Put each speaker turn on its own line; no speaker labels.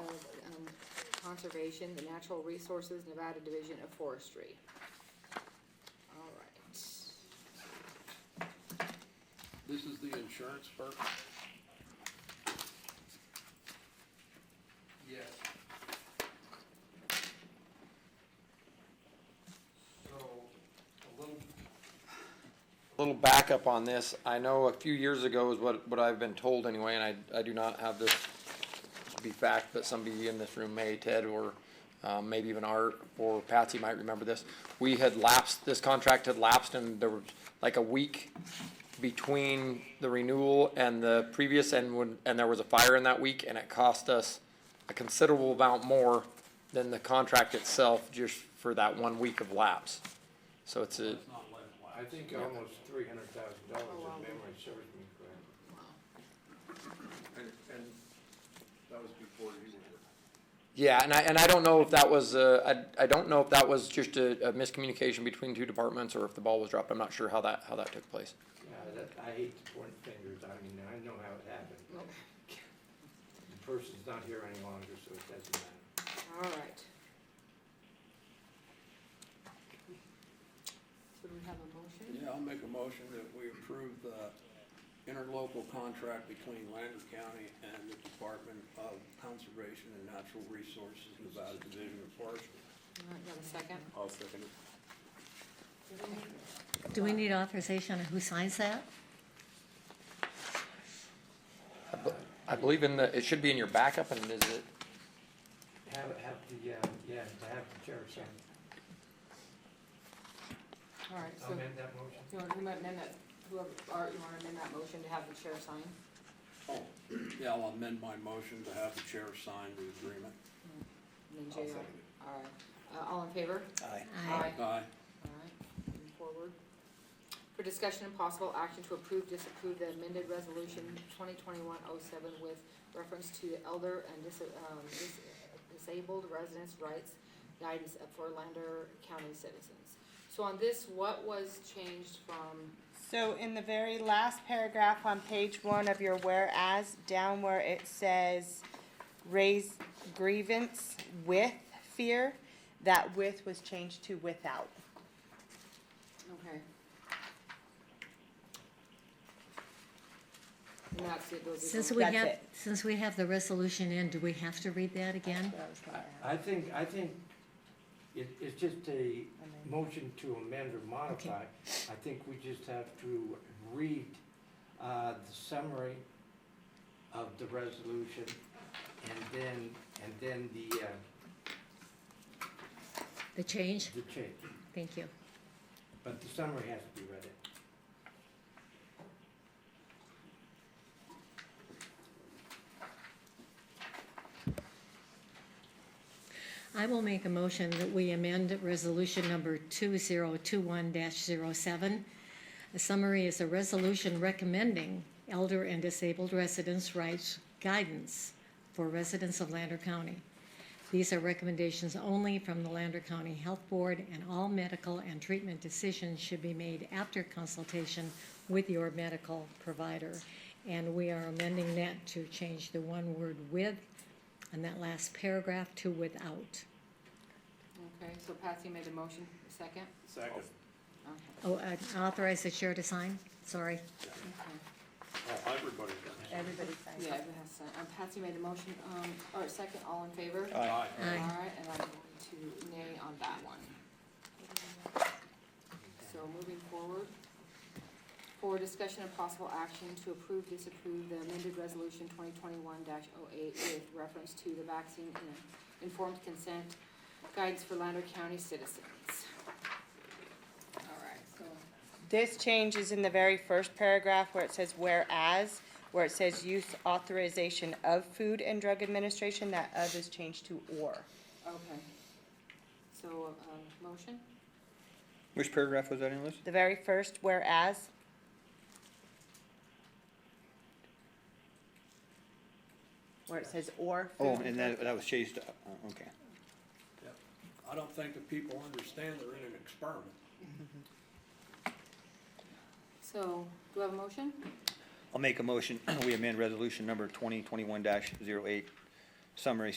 um, Conservation, the Natural Resources Nevada Division of Forestry. All right.
This is the insurance part?
Yes. So, a little,
little backup on this, I know a few years ago is what, what I've been told anyway, and I, I do not have this to be fact, but somebody in this room may, Ted, or, um, maybe even Art, or Patsy might remember this. We had lapsed, this contract had lapsed and there was like a week between the renewal and the previous, and when, and there was a fire in that week, and it cost us a considerable amount more than the contract itself, just for that one week of lapse. So it's a,
it's not like last.
I think almost three hundred thousand dollars, if memory serves me correct.
And, and that was before you were
Yeah, and I, and I don't know if that was, uh, I, I don't know if that was just a, a miscommunication between two departments or if the ball was dropped. I'm not sure how that, how that took place.
Yeah, that, I hate to point fingers, I mean, I know how it happened. The person's not here any longer, so it doesn't matter.
All right. So do we have a motion?
Yeah, I'll make a motion that we approve the interlocal contract between Lander County and the Department of Conservation and Natural Resources, Nevada Division of Forestry.
All right, you have a second?
I'll second it.
Do we need authorization on who signs that?
I believe in the, it should be in your backup and is it,
Have, have the, uh, yeah, to have the chair sign.
All right, so
Amend that motion?
you want, you might amend that, whoever, Art, you want to amend that motion to have the chair sign?
Oh, yeah, I'll amend my motion to have the chair sign the agreement.
And then JR, all right. Uh, all in favor?
Uh,
Aye.
Aye.
All right, moving forward. For discussion and possible action to approve, disapprove the amended resolution twenty twenty-one oh seven with reference to elder and dis- um, dis- disabled residents' rights guidance for Lander County citizens. So on this, what was changed from,
So in the very last paragraph on page one of your whereas, down where it says raise grievance with fear, that with was changed to without.
okay. And that's it, those are the-
Since we
That's
have,
it.
since we have the resolution in, do we have to read that again?
I think, I think it, it's just a motion to amend or modify. I think we just have to read, uh, the summary of the resolution and then, and then the, uh,
The change?
the change.
Thank you.
But the summary has to be read in.
I will make a motion that we amend resolution number two zero two one 7 The summary is a resolution recommending elder and disabled residents' rights guidance for residents of Lander County. These are recommendations only from the Lander County Health Board, and all medical and treatment decisions should be made after consultation with your medical provider. And we are amending that to change the one word with and that last paragraph to without.
Okay, so Patsy made a motion, second?
Second.
Okay,
Oh, uh, authorize the chair to sign, sorry.
okay.
Everybody does.
Everybody signs.
Yeah, everyone has to sign. Um, Patsy made a motion, um, or second, all in favor?
Aye.
All
Aye.
right, and I'm going to nay on that one. So moving forward, for discussion of possible action to approve, disapprove the amended resolution twenty twenty-one 8 with reference to the vaccine and informed consent guides for Lander County citizens. All right, so,
This change is in the very first paragraph where it says whereas, where it says use authorization of Food and Drug Administration, that of is changed to or.
okay. So, um, motion,
which paragraph was that in, Liz?
The very first whereas, where it says or. food
Oh,
and
and
drug.
that, that was chased, uh, okay.
I don't think the people understand they're in an experiment.
so, do I have a motion?
I'll make a motion, we amend resolution number twenty twenty-one 8 summary